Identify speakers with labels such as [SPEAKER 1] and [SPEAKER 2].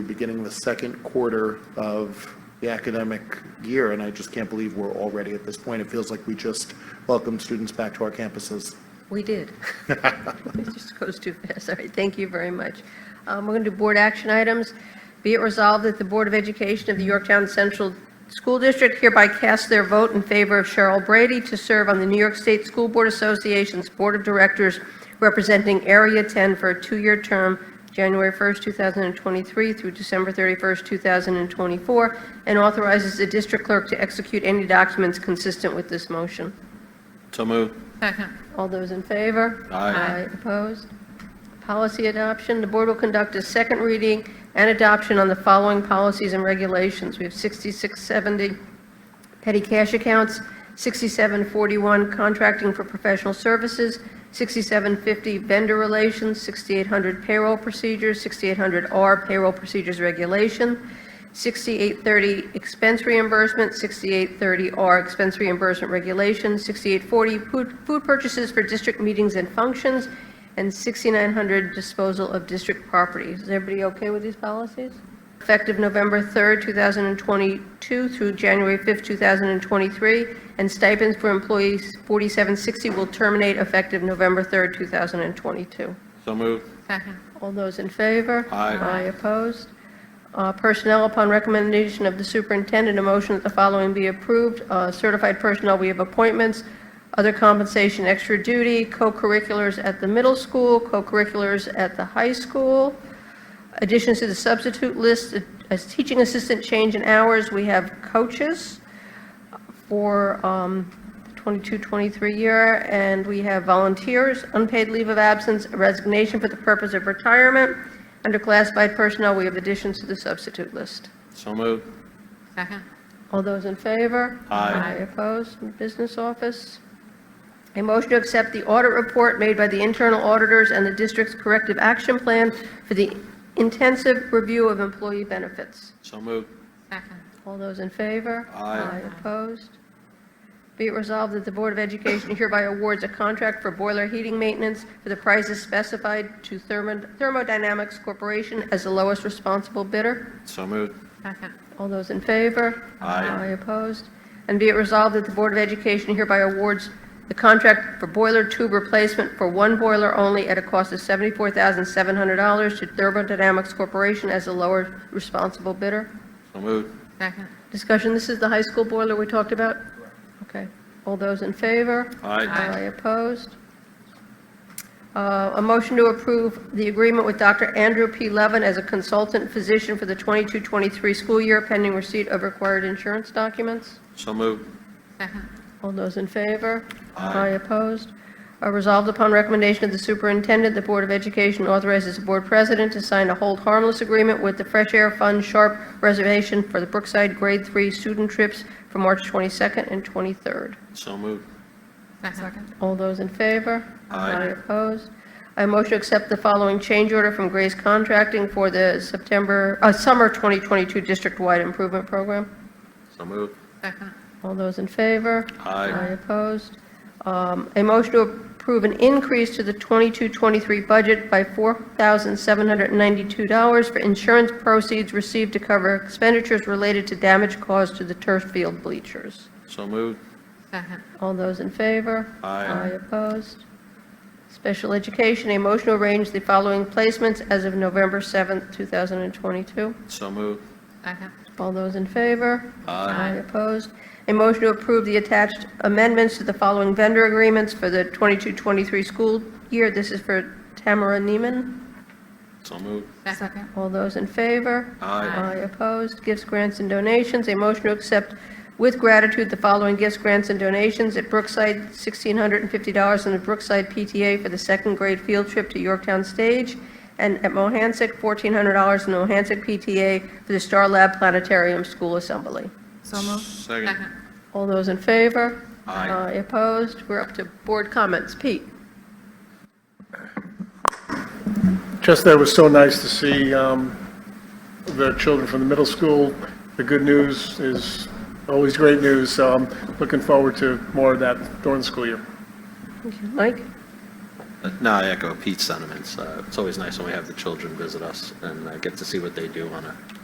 [SPEAKER 1] beginning the second quarter of the academic year, and I just can't believe we're already at this point. It feels like we just welcomed students back to our campuses.
[SPEAKER 2] We did. It just goes too fast. All right, thank you very much. Um, We're going to do board action items. Be it resolved that the Board of Education of the Yorktown Central School District hereby casts their vote in favor of Cheryl Brady to serve on the New York State School Board Association's Board of Directors representing Area 10 for a two-year term, January 1st, 2023 through December 31st, 2024, and authorizes the district clerk to execute any documents consistent with this motion.
[SPEAKER 3] So moved.
[SPEAKER 4] Second.
[SPEAKER 2] All those in favor?
[SPEAKER 3] Aye. Aye.
[SPEAKER 2] Opposed? Policy adoption, the board will conduct a second reading and adoption on the following policies and regulations. We have 6670 petty cash accounts, 6741 contracting for professional services, 6750 vendor relations, 6800 payroll procedures, 6800R payroll procedures regulation, 6830 expense reimbursement, 6830R expense reimbursement regulation, 6840 food- food purchases for district meetings and functions, and 6900 disposal of district properties. Is everybody okay with these policies? effective November 3rd, 2022 through January 5th, 2023, and stipends for employees 4760 will terminate effective November 3rd, 2022.
[SPEAKER 3] So moved.
[SPEAKER 4] Second.
[SPEAKER 2] All those in favor?
[SPEAKER 3] Aye.
[SPEAKER 2] Aye opposed? Uh, Personnel, upon recommendation of the superintendent, a motion that the following be approved. Uh, Certified personnel, we have appointments, other compensation, extra duty, co-curriculars at the middle school, co-curriculars at the high school. Additions to the substitute list, uh, as teaching assistant change in hours, we have coaches for um, the 22-23 year, and we have volunteers, unpaid leave of absence, resignation for the purpose of retirement. Under classified personnel, we have additions to the substitute list.
[SPEAKER 3] So moved.
[SPEAKER 4] Second.
[SPEAKER 2] All those in favor?
[SPEAKER 3] Aye.
[SPEAKER 2] opposed? Business office. A motion to accept the audit report made by the internal auditors and the district's corrective action plan for the intensive review of employee benefits.
[SPEAKER 3] So moved.
[SPEAKER 4] Second.
[SPEAKER 2] All those in favor?
[SPEAKER 3] Aye.
[SPEAKER 2] Opposed? Be it resolved that the Board of Education hereby awards a contract for boiler heating maintenance for the prices specified to Thermo- Thermodynamics Corporation as the lowest responsible bidder.
[SPEAKER 3] So moved.
[SPEAKER 4] Second.
[SPEAKER 2] All those in favor?
[SPEAKER 3] Aye.
[SPEAKER 2] opposed? And be it resolved that the Board of Education hereby awards the contract for boiler tube replacement for one boiler only at a cost of $74,700 to Thermodynamics Corporation as the lower responsible bidder.
[SPEAKER 3] So moved.
[SPEAKER 4] Second.
[SPEAKER 2] Discussion, this is the high school boiler we talked about? Okay. All those in favor?
[SPEAKER 3] Aye.
[SPEAKER 2] Aye opposed? Uh, A motion to approve the agreement with Dr. Andrew P. Levin as a consultant physician for the 22-23 school year pending receipt of required insurance documents.
[SPEAKER 3] So moved.
[SPEAKER 4] Second.
[SPEAKER 2] All those in favor?
[SPEAKER 3] Aye.
[SPEAKER 2] opposed? Are resolved upon recommendation of the superintendent, the Board of Education authorizes the board president to sign a hold harmless agreement with the Fresh Air Fund Sharp Reservation for the Brookside Grade 3 student trips for March 22nd and 23rd.
[SPEAKER 3] So moved.
[SPEAKER 4] Second.
[SPEAKER 2] All those in favor?
[SPEAKER 3] Aye.
[SPEAKER 2] opposed? I motion to accept the following change order from Grace Contracting for the September, uh, summer 2022 district-wide improvement program.
[SPEAKER 3] So moved.
[SPEAKER 4] Second.
[SPEAKER 2] All those in favor?
[SPEAKER 3] Aye.
[SPEAKER 2] opposed? Um, A motion to approve an increase to the 22-23 budget by $4,792 for insurance proceeds received to cover expenditures related to damage caused to the turf field bleachers.
[SPEAKER 3] So moved.
[SPEAKER 4] Second.
[SPEAKER 2] All those in favor?
[SPEAKER 3] Aye.
[SPEAKER 2] opposed? Special education, a motion to arrange the following placements as of November 7th, 2022.
[SPEAKER 3] So moved.
[SPEAKER 4] Second.
[SPEAKER 2] All those in favor?
[SPEAKER 3] Aye.
[SPEAKER 2] opposed? A motion to approve the attached amendments to the following vendor agreements for the 22-23 school year. This is for Tamara Neiman.
[SPEAKER 3] So moved.
[SPEAKER 4] Second.
[SPEAKER 2] All those in favor?
[SPEAKER 3] Aye.
[SPEAKER 2] Aye opposed. Gifts, grants, and donations. A motion to accept with gratitude the following gifts, grants, and donations at Brookside, $1,650 and the Brookside PTA for the second grade field trip to Yorktown Stage, and at Mohansick, $1,400 in the Mohansick PTA for the Star Lab Planetarium School Assembly.
[SPEAKER 4] So moved.
[SPEAKER 3] Second.
[SPEAKER 4] Second.
[SPEAKER 2] All those in favor?
[SPEAKER 3] Aye.
[SPEAKER 2] Opposed? We're up to board comments. Pete?
[SPEAKER 5] Just that it was so nice to see um, the children from the middle school. The good news is always great news, so I'm looking forward to more of that during the school year.
[SPEAKER 2] Mike?
[SPEAKER 3] Uh, No, I echo Pete's sentiments. Uh, It's always nice when we have the children visit us and uh, get to see what they do on a